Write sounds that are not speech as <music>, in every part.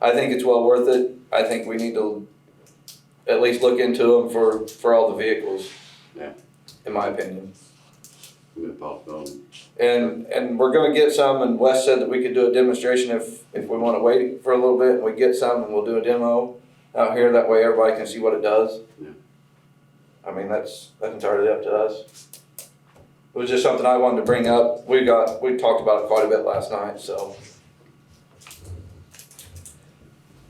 I think it's well worth it. I think we need to at least look into them for, for all the vehicles. Yeah. In my opinion. I'm gonna postpone. And, and we're gonna get some, and Wes said that we could do a demonstration if, if we wanna wait for a little bit, and we get some, and we'll do a demo out here, that way everybody can see what it does. Yeah. I mean, that's, that's entirely up to us. It was just something I wanted to bring up, we got, we talked about it quite a bit last night, so.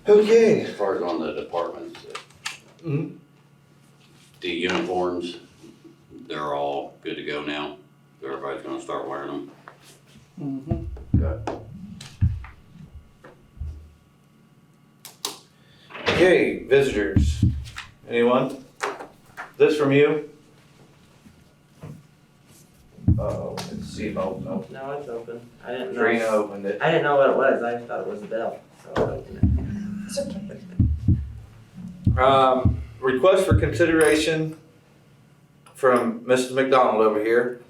Okay. As far as on the departments, Mhm. the uniforms, they're all good to go now. Everybody's gonna start wearing them. Mm-hmm. Okay, visitors. Anyone? This from you? Uh-oh, it's see, oh, no. No, it's open. I didn't Trina know. opened it. I didn't know what it was. I thought it was a bell. So I opened it. Um, request for consideration from Mrs. McDonald over here.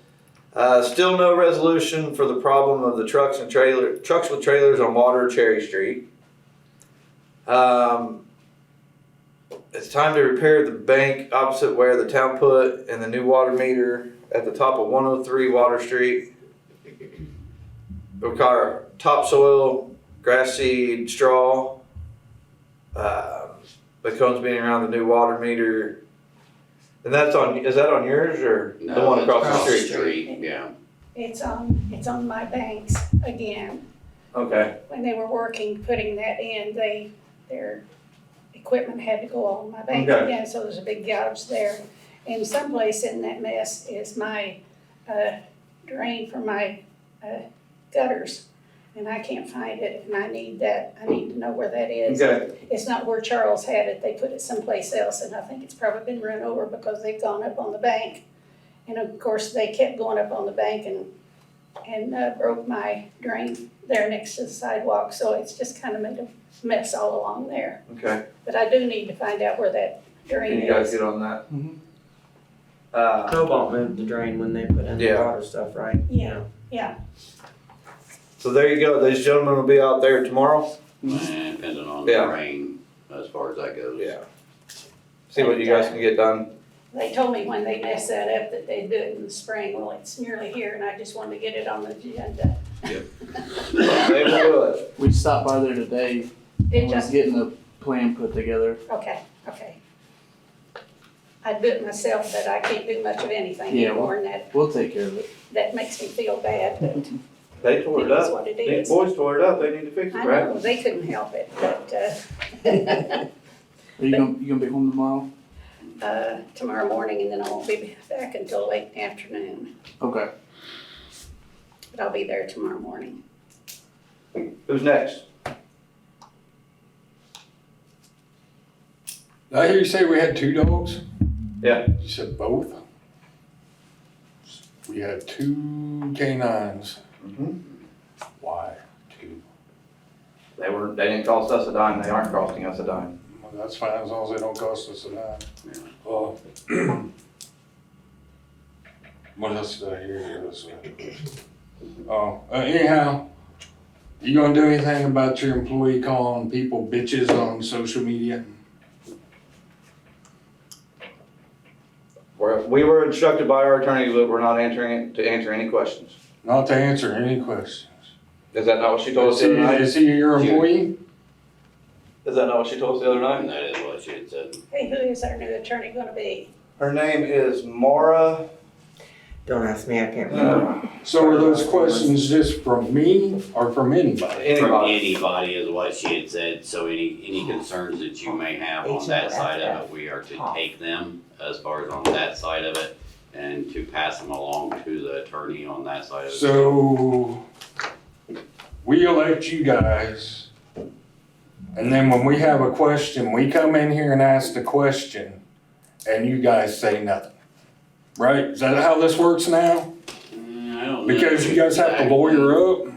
Uh, still no resolution for the problem of the trucks and trailer, trucks with trailers on Water Cherry Street. Um, it's time to repair the bank opposite where the town put and the new water meter at the top of one oh three Water Street. Require topsoil, grass seed, straw. Um, the cones being around the new water meter. And that's on, is that on yours or the No, one it's across the street? Yeah, It's on, it's on my banks again. Okay, When they were working, putting that in, they, their equipment had to go on my bank Okay. again, so there's a big gouge there. And someplace in that mess is my, uh, drain for my, uh, gutters. And I can't find it, and I need that, I need to know where that is. okay, It's not where Charles had it, they put it someplace else, and I think it's probably been run over because they've gone up on the bank. And of course, they kept going up on the bank and, and uh, broke my drain there next to the sidewalk, so it's just kind of made a mess all along there. okay. But I do need to find out where that Can drain you guys is. get on that? Mhm. Uh, Cobalt moved the drain when they put in the Yeah. water stuff, right? Yeah. Yeah, so there you go, these gentlemen will be out there tomorrow. Mm-hmm. and depending on the Mm-hmm. Yeah. rain, as far as that goes. See what you guys can get done. they told me when they messed that up that they'd do it in the spring, well, it's nearly here, and I just wanted to get it on the agenda. They will do it. We stopped by there today It and just was getting a plan put together. Okay, okay. I do it myself, but I can't do much of anything Yeah, anymore, and that, We'll take care of it. that makes me feel bad, but it They tore it is up. what it These is. boys tore it up, they need to fix I it, right? know, they couldn't help it, uh, but, Are you gonna, you gonna be home tomorrow? uh, uh, tomorrow morning, and then I won't be back until late in the afternoon, Okay. but I'll be there tomorrow morning. Who's next? Did I hear you say we had two dogs? Yeah. You said both? We had two canines. Mm-hmm. Why two? They were, they didn't cost us a dime, they aren't costing us a dime. Well, that's fine, as long as they don't cost us a dime. Well, <clears throat> What else did I hear uh, here this week? Oh, uh, anyhow, you gonna do anything about your employee calling people bitches on social media? We're, we were instructed by our attorney that we're not answering, to answer any questions. Not to answer any questions. Is that not what she told Is us the he, other night? is he your employee? Is that not what she told us the other And night? that is what she had said. Hey, who is our new attorney gonna be? Her name is Mara. Don't ask me. I can't remember. uh, So are those questions just from me or from anybody? From Anybody. anybody is what she had said, so any, any concerns that you may have on that side of it, we are to take them as far as on that side of it and to pass them along to the attorney on that side of it. So we elect you guys. And then when we have a question, we come in here and ask the question and you guys say nothing. Right? Is that how this works now? Mm, I don't know Because you guys have to lawyer up?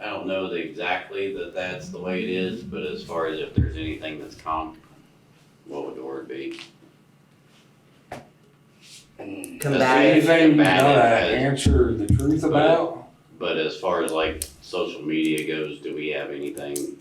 I don't know that exactly that that's the way it is, but as far as if there's anything that's com, what would the word be? Combative. Anything you gotta Combative, uh, answer the truth about? But as far as like social media goes, do we have anything